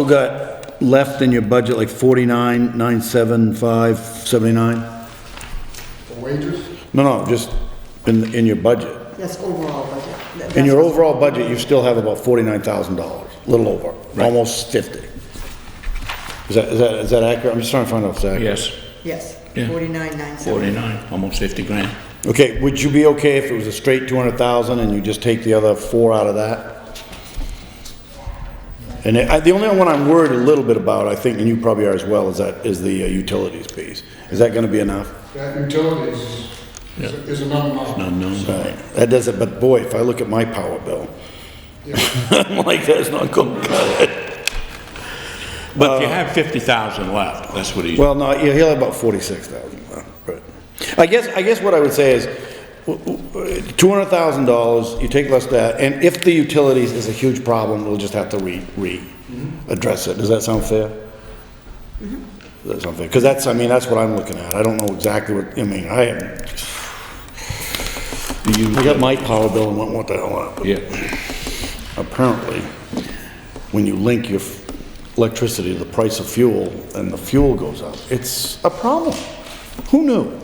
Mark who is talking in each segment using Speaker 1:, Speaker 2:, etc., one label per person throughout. Speaker 1: You got left in your budget like 49, 975, 79?
Speaker 2: For wages?
Speaker 1: No, no, just in, in your budget.
Speaker 3: That's overall budget.
Speaker 1: In your overall budget, you still have about $49,000, a little over, almost 50. Is that, is that, is that accurate? I'm just trying to find out if it's accurate.
Speaker 4: Yes,
Speaker 3: Yes,
Speaker 4: Yeah.
Speaker 3: forty-nine, nine seventy.
Speaker 4: 49, almost 50 grand.
Speaker 1: Okay, would you be okay if it was a straight 200,000 and you just take the other four out of that? And I, the only one I'm worried a little bit about, I think, and you probably are as well, is that, is the uh, utilities piece. Is that gonna be enough?
Speaker 2: That utilities is-
Speaker 4: Yeah.
Speaker 2: is another number.
Speaker 4: No, no,
Speaker 1: Right, that does it, but boy, if I look at my power bill, I'm like, that's not Uh, gonna cut it.
Speaker 4: but you have 50,000 left, that's what he's,
Speaker 1: Well, no, yeah, he'll have about forty-six thousand. I guess, I guess what I would say is, two hundred thousand dollars, you take less that, and if the utilities is a huge problem, we'll just have to re, re, address it. Does that sound fair? Does that sound fair? Because that's, I mean, that's what I'm looking at. I don't know exactly what, I mean, I haven't. I got my power bill and went, what the hell, happened?"
Speaker 4: yeah,
Speaker 1: apparently, when you link your f- electricity to the price of fuel and the fuel goes up, it's a problem. Who knew?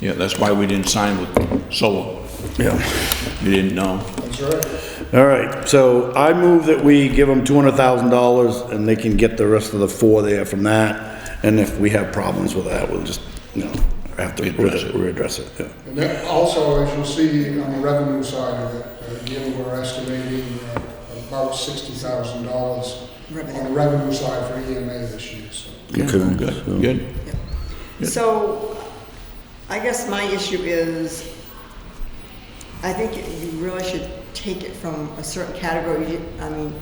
Speaker 4: yeah, that's why we didn't sign with solar.
Speaker 1: Yeah.
Speaker 4: We didn't know.
Speaker 2: That's right.
Speaker 1: All right, so I move that we give them $200,000 and they can get the rest of the four there from that. And if we have problems with that, we'll just, you know, have to
Speaker 4: Readdress it.
Speaker 1: readdress it, yeah.
Speaker 2: And that also, as you'll see on the revenue side of it, again, we're estimating uh, about sixty thousand dollars on the revenue side for EMA this year, so.
Speaker 1: Okay,
Speaker 4: Good,
Speaker 1: so-
Speaker 4: good.
Speaker 3: So, I guess my issue is, I think you really should take it from a certain category, You- I mean.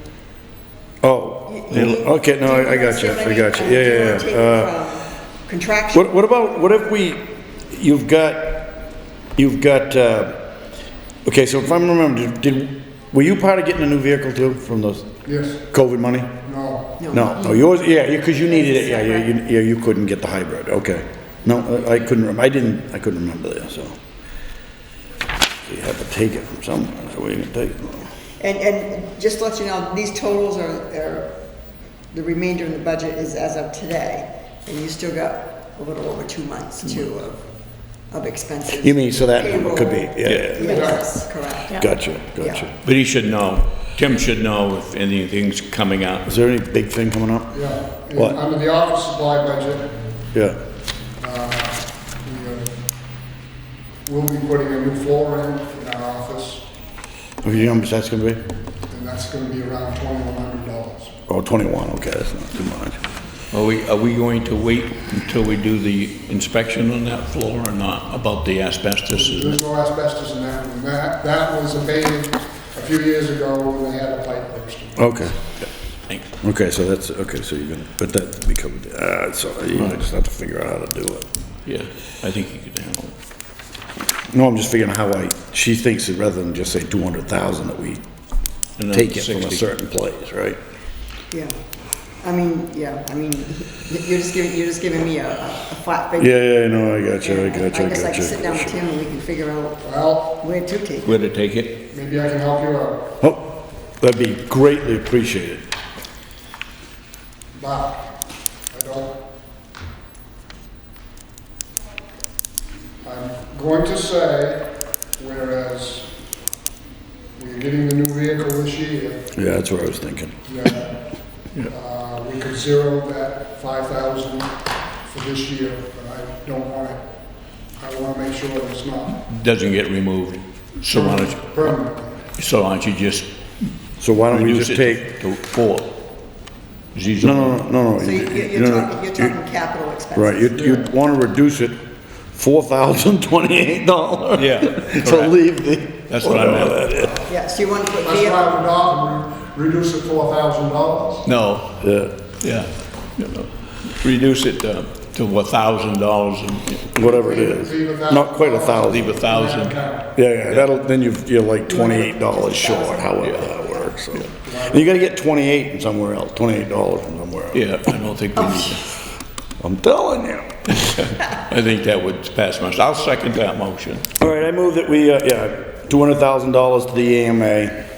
Speaker 1: Oh,
Speaker 3: you- you need-
Speaker 1: okay, no, I I got you, I got you, yeah,
Speaker 3: Do
Speaker 1: yeah,
Speaker 3: wanna
Speaker 1: yeah.
Speaker 3: take it
Speaker 1: Uh,
Speaker 3: from Contraction,
Speaker 1: What, what about, what if we, you've got, you've got, uh, okay, so if I'm remembering, did, were you part of getting a new vehicle too from those
Speaker 2: Yes,
Speaker 1: COVID money?
Speaker 2: no,
Speaker 1: No, no, yours, yeah, because you needed it, yeah, yeah, you, yeah, you couldn't get the hybrid, okay. No, I- I couldn't, rem- I didn't, I couldn't remember that, so. So You had to take it from somewhere, so where you gonna take it from?
Speaker 3: and, and just to let you know, these totals are, are, the remainder in the budget is as of today, and you still got a little over two months too of, of expenses.
Speaker 1: Mm. You mean, so that number could be, yeah, yeah, yeah.
Speaker 3: Yes, correct.
Speaker 1: gotcha, gotcha.
Speaker 4: But he should know, Tim should know if anything's coming out.
Speaker 1: Is there any big thing coming up?
Speaker 2: yeah. And
Speaker 1: What?
Speaker 2: Under the office supply budget,
Speaker 1: Yeah,
Speaker 2: uh, we, uh, we'll be putting a new floor in, in our office,
Speaker 1: Okay, you know how much that's gonna be?
Speaker 2: and that's gonna be around twenty-one hundred dollars.
Speaker 1: Oh, 21, okay, that's not too much.
Speaker 4: Are we, are we going to wait until we do the inspection on that floor or not, about the asbestos?
Speaker 2: There's no asbestos in that room. That, that was abated a few years ago when they had a pipe burst.
Speaker 1: Okay,
Speaker 4: Thanks.
Speaker 1: okay, so that's, okay, so you're gonna, but that becomes, uh, so you just have to figure out how to do it.
Speaker 4: Yeah, I think he could handle it.
Speaker 1: No, I'm just figuring how I, she thinks that rather than just say 200,000, that we
Speaker 4: And then
Speaker 1: take it from a
Speaker 4: 60.
Speaker 1: certain place, right?
Speaker 3: Yeah, I mean, yeah, I mean, you're just giving, you're just giving me a, a flat figure.
Speaker 1: Yeah, yeah, no, I got you, I
Speaker 3: And
Speaker 1: got you, I
Speaker 3: guess I
Speaker 1: got
Speaker 3: can sit down with
Speaker 1: you.
Speaker 3: Tim and we can figure out
Speaker 2: Well,
Speaker 3: where to take it.
Speaker 4: Where to take it?
Speaker 2: maybe I can help you out.
Speaker 1: Oh, that'd be greatly appreciated.
Speaker 2: Bob, I don't. I'm going to say, whereas we're getting the new vehicle this year,
Speaker 1: Yeah, that's what I was thinking.
Speaker 2: that, uh, we could zero that five thousand for this year, but I don't want it. I wanna make sure it's not
Speaker 4: Doesn't get removed. So why don't you,
Speaker 2: permanent.
Speaker 4: so why don't you just
Speaker 1: So why don't we
Speaker 4: reduce
Speaker 1: just take,
Speaker 4: it to four? Zero.
Speaker 1: no, no, no, no.
Speaker 3: So you- you're, you're
Speaker 1: no, no,
Speaker 3: talking, you're
Speaker 1: you-
Speaker 3: talking capital expenses.
Speaker 1: Right, you'd, you'd wanna reduce it $4,028.
Speaker 4: Yeah,
Speaker 1: To
Speaker 4: correct.
Speaker 1: leave the.
Speaker 4: That's what I meant.
Speaker 1: whatever that is.
Speaker 3: Yeah, so you want to put
Speaker 2: That's
Speaker 3: vehicle,
Speaker 2: five hundred dollars, reduce it four thousand dollars.
Speaker 4: No,
Speaker 1: Yeah,
Speaker 4: yeah. you know, Reduce it uh, to a thousand dollars and
Speaker 1: whatever it is. Not quite a thousand.
Speaker 4: leave a thousand.
Speaker 1: Yeah, yeah, that'll, then you, you're like twenty-eight dollars short, however that works, so. And you gotta get twenty-eight from somewhere else, twenty-eight dollars from somewhere else.
Speaker 4: Yeah, I don't think we need that.
Speaker 1: I'm telling you.
Speaker 4: I think that would pass muster. I'll second that motion.
Speaker 1: E All right, I move that we, uh, yeah, two hundred thousand dollars to the EMA